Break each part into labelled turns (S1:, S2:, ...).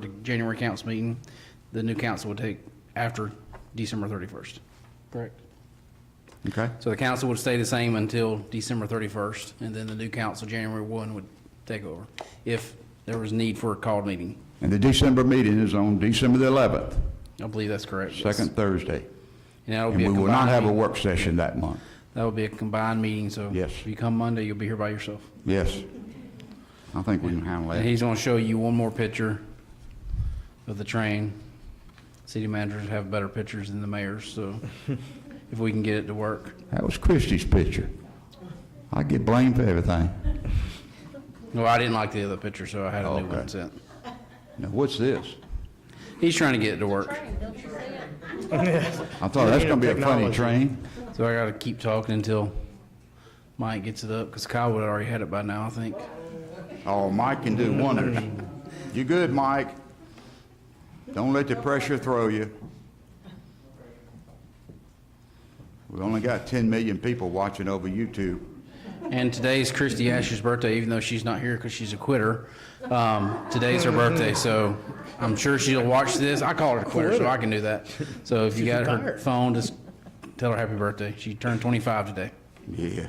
S1: the January council meeting, the new council would take after December 31st. Correct.
S2: Okay,
S1: So the council would stay the same until December 31st, and then the new council, January 1, would take over, if there was need for a called meeting.
S2: and the December meeting is on December the 11th,
S1: I believe that's correct. yes.
S2: second Thursday.
S1: And that would
S2: And
S1: be
S2: we
S1: a
S2: will not have
S1: combined,
S2: a
S1: meeting.
S2: work session that month.
S1: that would be a combined meeting, so.
S2: Yes.
S1: If you come Monday, you'll be here by yourself.
S2: Yes. I think we can handle
S1: And
S2: that.
S1: he's gonna show you one more picture of the train. City managers have better pictures than the mayors, so if we can get it to work.
S2: That was Christie's picture. I get blamed for everything.
S1: Well, I didn't like the other picture, so I had a new
S2: Okay.
S1: one sent.
S2: Now, what's this?
S1: He's trying to get it to work,
S2: I thought that's gonna be a funny train.
S1: so I gotta keep talking until Mike gets it up, because Kyle would have already had it by now, I think.
S2: Oh, Mike can do wonders. You good, Mike? Don't let the pressure throw you. We only got 10 million people watching over YouTube.
S1: And today's Christy Asher's birthday, even though she's not here because she's a quitter. Um, today's her birthday, so I'm sure she'll watch this. I call her a quitter, so I can do that. So if you got her phone, just tell her happy birthday. She turned 25 today.
S2: Yeah,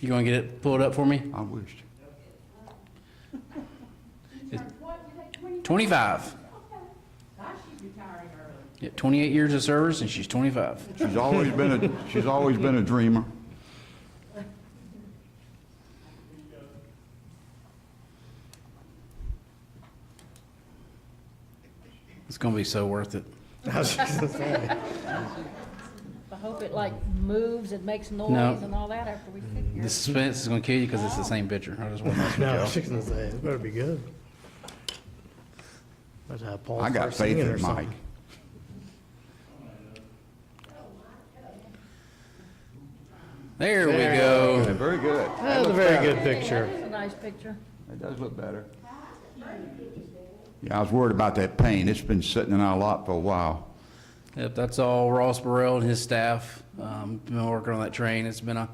S1: You gonna get it pulled up for me?
S2: I wished.
S1: It's 25. Yeah, 28 years of service, and she's 25.
S2: She's always been a, she's always been a dreamer.
S1: It's gonna be so worth it.
S3: I was just gonna say.
S4: I hope it like moves and makes
S1: No.
S4: noise and all that after we
S3: Mm,
S1: The
S4: figure.
S1: suspense is gonna kill you because it's the same picture. I just want to.
S3: No, I was just gonna say, it better be good. Let's have Paul
S2: I got
S3: first
S2: faith
S3: singing or
S2: in Mike.
S3: something.
S1: There we go.
S2: Very good.
S3: That's a very good picture.
S4: It's a nice picture.
S2: It does look better. Yeah, I was worried about that pain. It's been sitting in our lot for a while.
S1: Yep, that's all Ross Burrell and his staff. Um, been working on that train. It's been a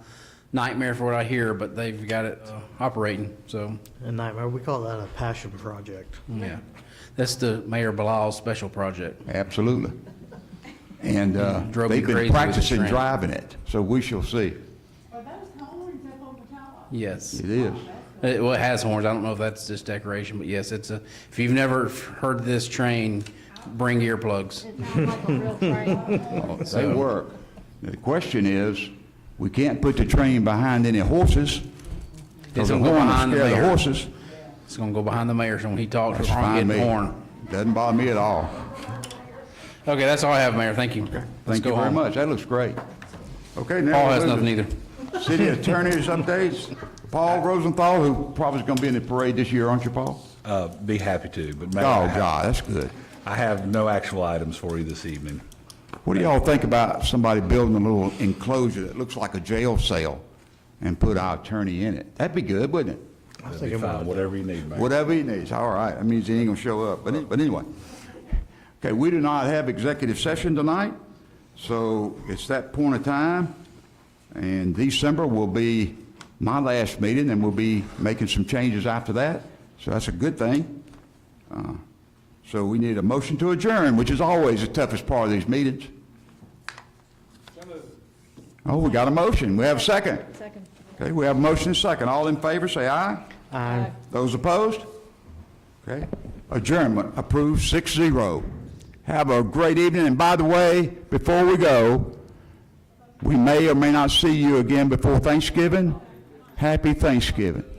S1: nightmare for what I hear, but they've got it uh, operating. So,
S3: A nightmare. We call that a passion project.
S1: yeah. That's the Mayor Bilal's special project.
S2: Absolutely. And uh,
S1: Drove me
S2: they've
S1: crazy
S2: been
S1: with the
S2: practicing
S1: train.
S2: driving it, so we shall see.
S5: Are those horns up on the tower?
S1: Yes.
S2: It is.
S1: It, well, it has horns. I don't know if that's just decoration, but yes, it's a, if you've never heard this train, bring earplugs. Oh,
S4: It sounds like a real train.
S2: They work. The question is, we can't put the train behind any horses. 'cause
S1: It's
S2: the
S1: gonna go
S2: horn will
S1: behind the
S2: scare
S1: mayor.
S2: horses.
S1: It's gonna go behind the mayor, so when he talks, we're
S2: That's
S1: gonna
S2: fine
S1: get
S2: me.
S1: horn.
S2: Doesn't bother me at all.
S1: Okay, that's all I have, Mayor. Thank you. Let's
S2: Thank you
S1: go
S2: very
S1: home.
S2: much. That looks great. Okay, now.
S1: Paul
S2: we'll
S1: has
S2: move to
S1: nothing either.
S2: City Attorney's updates. Paul Rosenthal, who probably is going to be in the parade this year, aren't you, Paul?
S6: Uh, Be happy to, but
S2: Oh,
S6: Mayor, I have-
S2: God, that's good.
S6: I have no actual items for you this evening.
S2: What do y'all think about somebody building a little enclosure that looks like a jail cell and put our attorney in it? That'd be good, wouldn't it?
S3: I was
S6: It'll be
S3: thinking about
S6: fine, whatever you need, Mayor.
S2: Whatever he needs, all right. That means he ain't gonna show up, but, any- but anyway. Okay, we do not have executive session tonight, so it's that point of time. And December will be my last meeting, and we'll be making some changes after that, so that's a good thing. Uh, So we need a motion to adjourn, which is always the toughest part of these meetings. Oh, we got a motion. We have a second.
S4: Second.
S2: Okay, we have a motion and a second. All in favor, say aye.
S3: Aye.
S2: Those opposed? Okay. Adjournment approved 6-0. Have a great evening, and by the way, before we go, we may or may not see you again before Thanksgiving. Happy Thanksgiving.